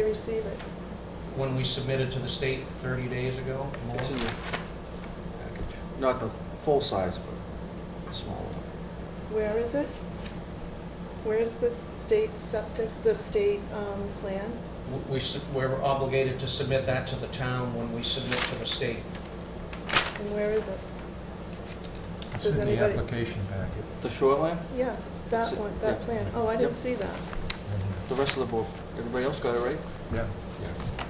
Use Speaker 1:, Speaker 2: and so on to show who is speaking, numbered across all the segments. Speaker 1: receive it?
Speaker 2: when we submitted to the state 30 days ago? more?
Speaker 3: It's in the package. Not the full size, but the smaller one.
Speaker 1: Where is it? Where's the state septic, the state um, plan?
Speaker 2: W- We, su- we're obligated to submit that to the town when we submit to the state.
Speaker 1: And where is it?
Speaker 4: It's
Speaker 1: Does
Speaker 4: in the
Speaker 1: anybody-
Speaker 4: application packet.
Speaker 3: The shoreline,
Speaker 1: Yeah, that
Speaker 3: It's-
Speaker 1: one, that
Speaker 3: yeah.
Speaker 1: plan. Oh, I didn't
Speaker 3: Yep.
Speaker 1: see that.
Speaker 5: Mm-hmm.
Speaker 3: the rest of the board, everybody else got it right?
Speaker 4: Yeah.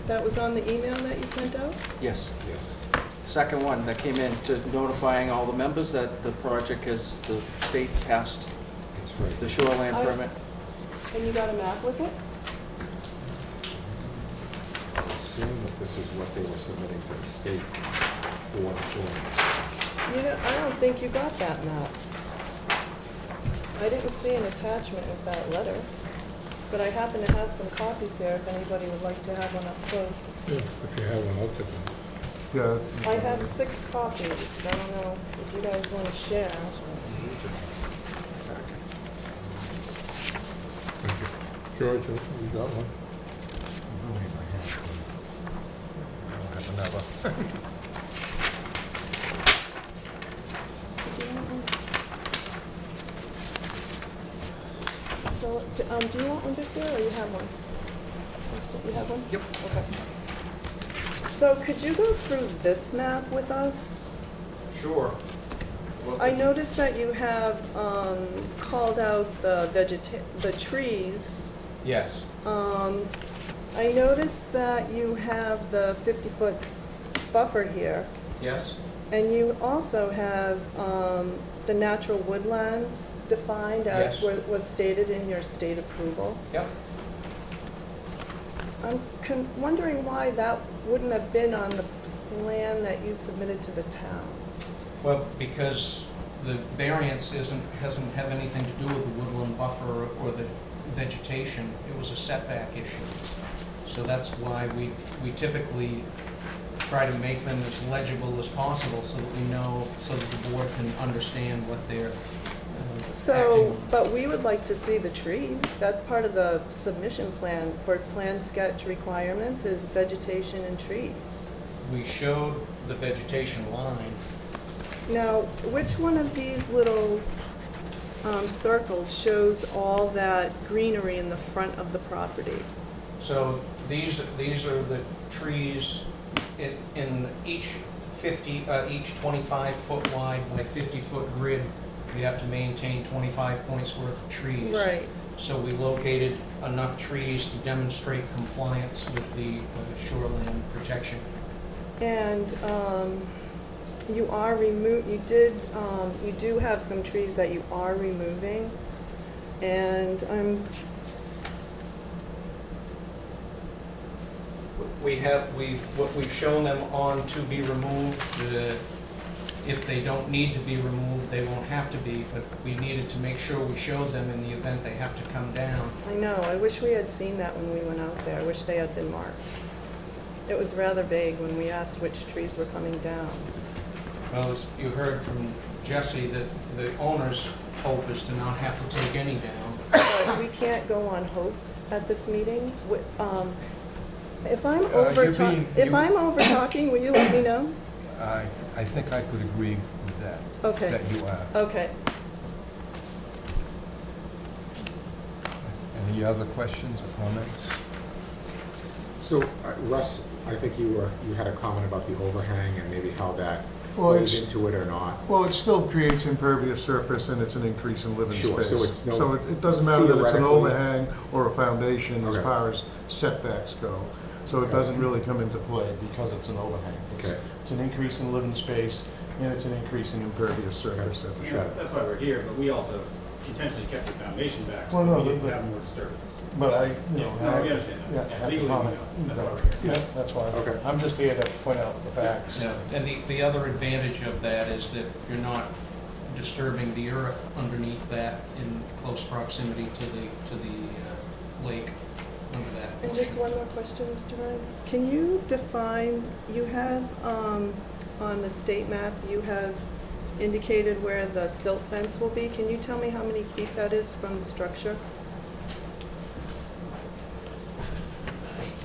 Speaker 1: That was on the email that you sent out?
Speaker 3: Yes.
Speaker 5: Yes.
Speaker 3: Second one that came in to notifying all the members that the project has, the state passed
Speaker 5: That's
Speaker 3: the
Speaker 5: right.
Speaker 3: shoreline
Speaker 1: I-
Speaker 3: permit.
Speaker 1: And you got a map with it?
Speaker 5: I assume that this is what they were submitting to the state for the form.
Speaker 1: You know, I don't think you got that map. I didn't see an attachment with that letter, but I happen to have some copies here if anybody would like to have one up close.
Speaker 6: Yeah, if you have one, I'll take one.
Speaker 4: Yeah.
Speaker 1: I have six copies, I don't know if you guys want to share.
Speaker 6: Thank you. George, you got one?
Speaker 4: I don't have another.
Speaker 1: So, d- um, do you want one, Victor, or you have one? Just- You have one? Yep. Okay. So could you go through this map with us?
Speaker 2: Sure.
Speaker 1: I noticed that you have um, called out the vegeta, the trees.
Speaker 2: Yes.
Speaker 1: Um, I noticed that you have the 50-foot buffer here,
Speaker 2: Yes?
Speaker 1: and you also have um, the natural woodlands defined as
Speaker 2: Yes.
Speaker 1: wa- was stated in your state approval.
Speaker 2: Yep.
Speaker 1: I'm con- wondering why that wouldn't have been on the plan that you submitted to the town.
Speaker 2: Well, because the variance isn't, hasn't have anything to do with the woodland buffer or the vegetation. It was a setback issue. So that's why we, we typically try to make them as legible as possible so that we know, so that the board can understand what they're um, acting
Speaker 1: So, but we would like to see the trees. That's part of the submission plan for plan sketch requirements is vegetation and trees.
Speaker 2: We showed the vegetation line.
Speaker 1: Now, which one of these little um, circles shows all that greenery in the front of the property?
Speaker 2: So these, these are the trees in, in each 50, uh, each 25-foot wide by 50-foot grid. You have to maintain 25 points worth of trees.
Speaker 1: Right.
Speaker 2: So we located enough trees to demonstrate compliance with the uh, shoreline protection.
Speaker 1: And um, you are remo, you did, um, you do have some trees that you are removing. And I'm,
Speaker 2: We have, we, what we've shown them on to be removed, uh, if they don't need to be removed, they won't have to be, but we needed to make sure we showed them in the event they have to come down.
Speaker 1: I know, I wish we had seen that when we went out there. I wish they had been marked. It was rather vague when we asked which trees were coming down.
Speaker 2: Well, as you heard from Jesse, that the owner's hope is to not have to take any down.
Speaker 1: So we can't go on hopes at this meeting. Wi- um, If I'm
Speaker 4: Uh,
Speaker 1: over
Speaker 4: you're
Speaker 1: talking,
Speaker 4: being-
Speaker 1: if
Speaker 4: you-
Speaker 1: I'm over talking, will you let me know?
Speaker 4: I, I think I could agree with that,
Speaker 1: Okay,
Speaker 4: that you are.
Speaker 1: okay.
Speaker 4: Any other questions or comments?
Speaker 5: So uh, Russ, I think you were, you had a comment about the overhang and maybe how that
Speaker 7: Well,
Speaker 5: plays
Speaker 7: it's-
Speaker 5: into it or not.
Speaker 7: Well, it still creates impervious surface and it's an increase in living
Speaker 5: Sure,
Speaker 7: space.
Speaker 5: so it's no-
Speaker 7: So it, it doesn't matter that it's an
Speaker 5: Theoretically-
Speaker 7: overhang or a foundation as
Speaker 5: Okay.
Speaker 7: far as setbacks go. So it
Speaker 5: Okay.
Speaker 7: doesn't really come into play because it's an overhang. It's-
Speaker 5: Okay.
Speaker 7: It's an increase in living space and it's an increase in impervious surface at the
Speaker 8: Yeah,
Speaker 7: shore.
Speaker 8: that's why we're here, but we also intentionally kept the foundation back so
Speaker 7: Well, no,
Speaker 8: we didn't
Speaker 7: but-
Speaker 8: have more disturbance.
Speaker 7: But I, you
Speaker 8: Yeah,
Speaker 7: know.
Speaker 8: no,
Speaker 7: I-
Speaker 8: we understand
Speaker 7: yeah,
Speaker 8: that.
Speaker 7: I
Speaker 8: Yeah,
Speaker 7: have to
Speaker 8: Legally, we know.
Speaker 7: comment.
Speaker 8: That's why we're here.
Speaker 7: Yeah, that's why.
Speaker 5: Okay.
Speaker 7: I'm just here to point out the facts.
Speaker 2: Yeah, And the, the other advantage of that is that you're not disturbing the earth underneath that in close proximity to the, to the uh, lake under that.
Speaker 1: And just one more question, Mr. Burns. Can you define, you have, um, on the state map, you have indicated where the silt fence will be. Can you tell me how many feet that is from the structure?